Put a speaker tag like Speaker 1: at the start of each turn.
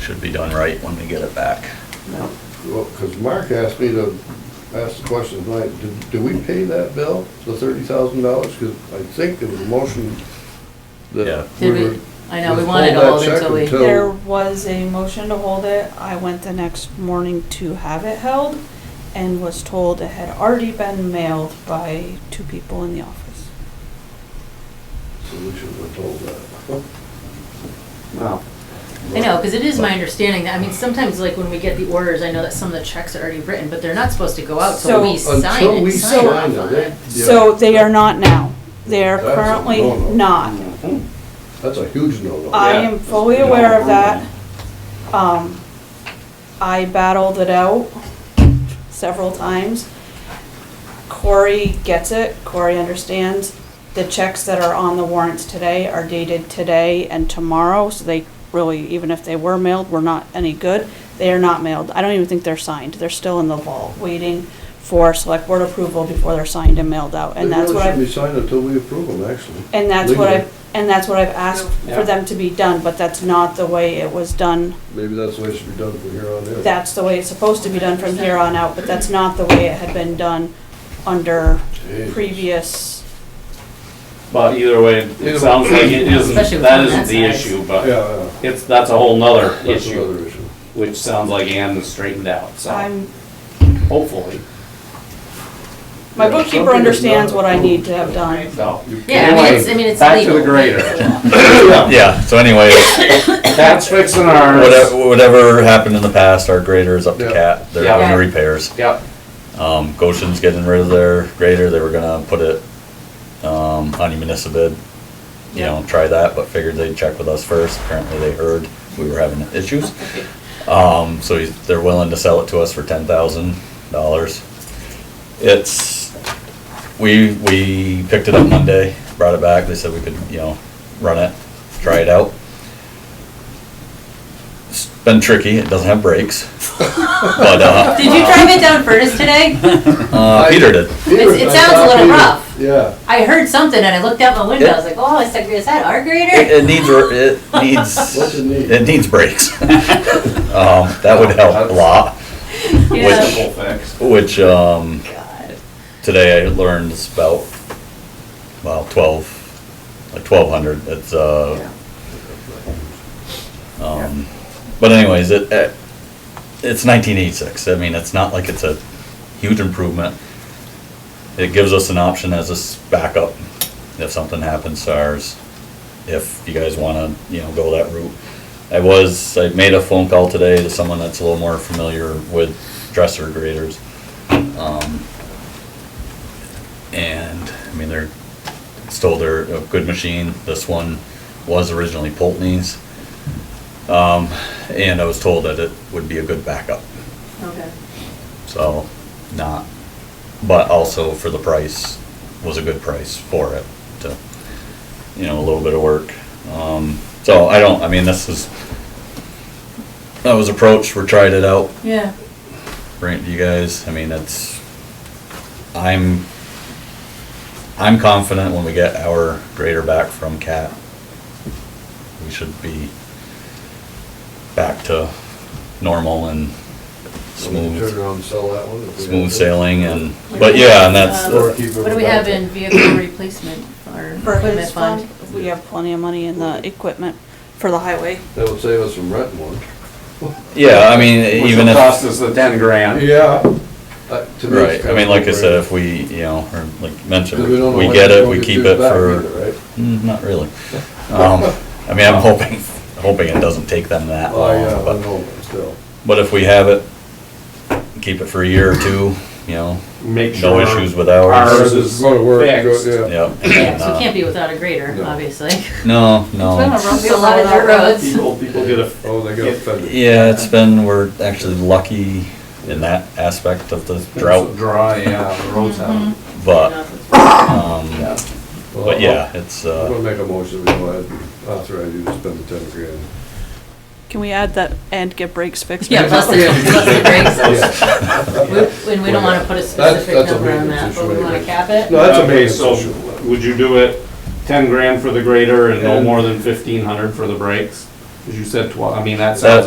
Speaker 1: should be done right when we get it back.
Speaker 2: No.
Speaker 3: Well, because Mark asked me to ask the question tonight, did, do we pay that bill, the thirty thousand dollars? Because I think there was a motion
Speaker 1: Yeah.
Speaker 3: that we
Speaker 2: Did
Speaker 3: were.
Speaker 2: we, I know, we
Speaker 3: let's
Speaker 2: wanted to
Speaker 3: hold that
Speaker 2: hold it
Speaker 3: check
Speaker 2: till we,
Speaker 3: until-
Speaker 4: There was a motion to hold it. I went the next morning to have it held and was told it had already been mailed by two people in the office.
Speaker 3: So we should have told that.
Speaker 2: well,
Speaker 3: But-
Speaker 5: I know, because it is my understanding that, I mean, sometimes like when we get the orders, I know that some of the checks are already written, but they're not supposed to go out till
Speaker 4: So-
Speaker 5: we sign
Speaker 3: Until we
Speaker 5: it, sign
Speaker 3: sign
Speaker 5: off
Speaker 3: it,
Speaker 5: on it.
Speaker 3: they- yeah.
Speaker 4: So they are not now. They are
Speaker 3: That's a
Speaker 4: currently
Speaker 3: no-no.
Speaker 4: not.
Speaker 2: mhm.
Speaker 3: That's a huge no-no.
Speaker 4: I
Speaker 2: Yeah.
Speaker 4: am fully
Speaker 2: You don't
Speaker 4: aware
Speaker 2: want
Speaker 4: of that. Um, I battled it out several times. Corey gets it, Corey understands. The checks that are on the warrants today are dated today and tomorrow, so they really, even if they were mailed, were not any good. They are not mailed. I don't even think they're signed. They're still in the vault, waiting for select board approval before they're signed and mailed out. And that's what I've.
Speaker 3: They really shouldn't be signed until we approve them, actually.
Speaker 4: And that's what
Speaker 3: Legally.
Speaker 4: I've, and that's what I've asked for
Speaker 2: Yeah.
Speaker 4: them to be done, but that's not the way it was done.
Speaker 3: Maybe that's the way it should be done from here on in.
Speaker 4: That's the way it's supposed to be done from here on out, but that's not the way it had been done under
Speaker 3: Jesus.
Speaker 4: previous,
Speaker 6: But either way,
Speaker 3: Either
Speaker 6: it sounds like it
Speaker 5: Especially
Speaker 6: isn't,
Speaker 5: with
Speaker 6: that
Speaker 5: something
Speaker 6: isn't
Speaker 5: that
Speaker 6: the
Speaker 5: size.
Speaker 6: issue,
Speaker 3: Yeah,
Speaker 6: but
Speaker 3: yeah,
Speaker 6: it's, that's a whole nother
Speaker 3: that's
Speaker 6: issue,
Speaker 3: another issue.
Speaker 6: which sounds like Ann has straightened out, so
Speaker 4: I'm,
Speaker 6: hopefully,
Speaker 4: my
Speaker 3: Yeah, something is
Speaker 4: bookkeeper
Speaker 3: not
Speaker 4: understands what I need to have done.
Speaker 6: so.
Speaker 5: Yeah, I mean, it's, I mean, it's legal.
Speaker 6: Back to the grader.
Speaker 1: Yeah, so anyway,
Speaker 6: That's fixing ours.
Speaker 1: whatever, whatever happened in the past, our grader is up to
Speaker 3: Yeah.
Speaker 1: cat, they're
Speaker 6: Yeah.
Speaker 1: doing repairs.
Speaker 6: Yep,
Speaker 1: Um, Goshen's getting rid of their grader, they were gonna put it, um, on municipal bid. You know, try that, but figured they'd check with us first, apparently they heard we were having issues. Um, so he's, they're willing to sell it to us for ten thousand dollars. It's, we, we picked it up Monday, brought it back, they said we could, you know, run it, try it out. It's been tricky, it doesn't have brakes, but, uh,
Speaker 5: Did you drive it down Furnace today?
Speaker 1: uh, Peter did.
Speaker 3: Peter,
Speaker 5: it
Speaker 3: I
Speaker 5: sounds a
Speaker 3: thought
Speaker 5: little
Speaker 3: Peter-
Speaker 5: rough.
Speaker 3: Yeah.
Speaker 5: I heard something and I looked out the window, I was like, oh, is that, is that our
Speaker 1: It,
Speaker 5: grader?
Speaker 1: it needs, it needs,
Speaker 3: What's it need?
Speaker 1: it needs brakes. Um, that would help a lot,
Speaker 5: Yeah.
Speaker 6: simple fix.
Speaker 1: which, um,
Speaker 5: Oh, God.
Speaker 1: today I learned it's about, well, twelve, like twelve hundred, it's, uh, um, but anyways, it, it, it's nineteen eighty-six, I mean, it's not like it's a huge improvement. It gives us an option as a s- backup, if something happens to ours, if you guys wanna, you know, go that route. I was, I made a phone call today to someone that's a little more familiar with dresser graders. Um, and, I mean, they're, stole their, a good machine, this one was originally Pulteney's. Um, and I was told that it would be a good backup,
Speaker 5: Okay.
Speaker 1: so, not, but also for the price, was a good price for it, to, you know, a little bit of work. Um, so I don't, I mean, this is, I was approached, we tried it out,
Speaker 5: Yeah.
Speaker 1: bring it to you guys. I mean, it's, I'm, I'm confident when we get our grader back from CAT, we should be back to normal and
Speaker 3: So we can Turn
Speaker 1: smooth,
Speaker 3: around and sell that one. if we have
Speaker 1: smooth
Speaker 3: to.
Speaker 1: sailing and, but yeah, and that's,
Speaker 5: Um, What do we have in vehicle replacement or
Speaker 4: For
Speaker 5: equipment
Speaker 4: his fund,
Speaker 5: fund?
Speaker 4: we have plenty of money in the equipment for the highway.
Speaker 3: That would save us from renting one.
Speaker 1: yeah, I mean,
Speaker 6: Which
Speaker 1: even
Speaker 6: will
Speaker 1: if.
Speaker 6: cost us the ten grand.
Speaker 3: Yeah. Uh,
Speaker 1: Right, I mean, like I said, if we, you know, or like mentioned,
Speaker 3: Because we don't know
Speaker 1: we
Speaker 3: when
Speaker 1: get it,
Speaker 3: it's gonna
Speaker 1: we
Speaker 3: get
Speaker 1: keep
Speaker 3: used
Speaker 1: it
Speaker 3: back
Speaker 1: for.
Speaker 3: either, right?
Speaker 1: Mm, Not really. Um, I mean, I'm hoping, hoping it doesn't take them that
Speaker 3: Oh, yeah,
Speaker 1: long,
Speaker 3: I
Speaker 1: but,
Speaker 3: know, but still.
Speaker 1: but if we have it, keep it for a year or two, you know,
Speaker 6: Make
Speaker 1: no
Speaker 6: sure.
Speaker 1: issues with ours.
Speaker 6: Ours is
Speaker 3: Go to work, go-
Speaker 6: fixed.
Speaker 3: yeah.
Speaker 1: Yep.
Speaker 5: Yeah,
Speaker 1: and,
Speaker 5: so
Speaker 1: uh,
Speaker 5: it can't be without a grader,
Speaker 3: No.
Speaker 5: obviously.
Speaker 1: No, no.
Speaker 5: It's a lot of dirt roads.
Speaker 6: People, people get a,
Speaker 3: Oh, they got
Speaker 6: Yeah.
Speaker 3: offended.
Speaker 1: Yeah, it's been, we're actually lucky in that aspect of the drought,
Speaker 6: Dry, yeah, the roads out.
Speaker 1: but, um,
Speaker 6: Yeah.
Speaker 3: Well,
Speaker 1: but yeah, it's,
Speaker 3: I'm gonna
Speaker 1: uh,
Speaker 3: make a motion, that we go ahead and authorize you to spend the ten grand.
Speaker 4: Can we add that and get brakes fixed?
Speaker 5: Yeah, plus the, plus the brakes.
Speaker 3: Yeah.
Speaker 5: We- And we don't wanna put a
Speaker 3: That's-
Speaker 5: specific
Speaker 3: that's a
Speaker 5: number on
Speaker 3: maintenance
Speaker 5: that, but we
Speaker 3: issue,
Speaker 5: wanna
Speaker 3: right?
Speaker 5: cap it?
Speaker 3: No, that's a
Speaker 6: Okay,
Speaker 3: maintenance
Speaker 6: so
Speaker 3: issue.
Speaker 6: would you do it ten grand for the grader and no
Speaker 3: And-
Speaker 6: more than fifteen hundred for the brakes? As you said, twelve, I mean, that
Speaker 1: That-
Speaker 6: sounds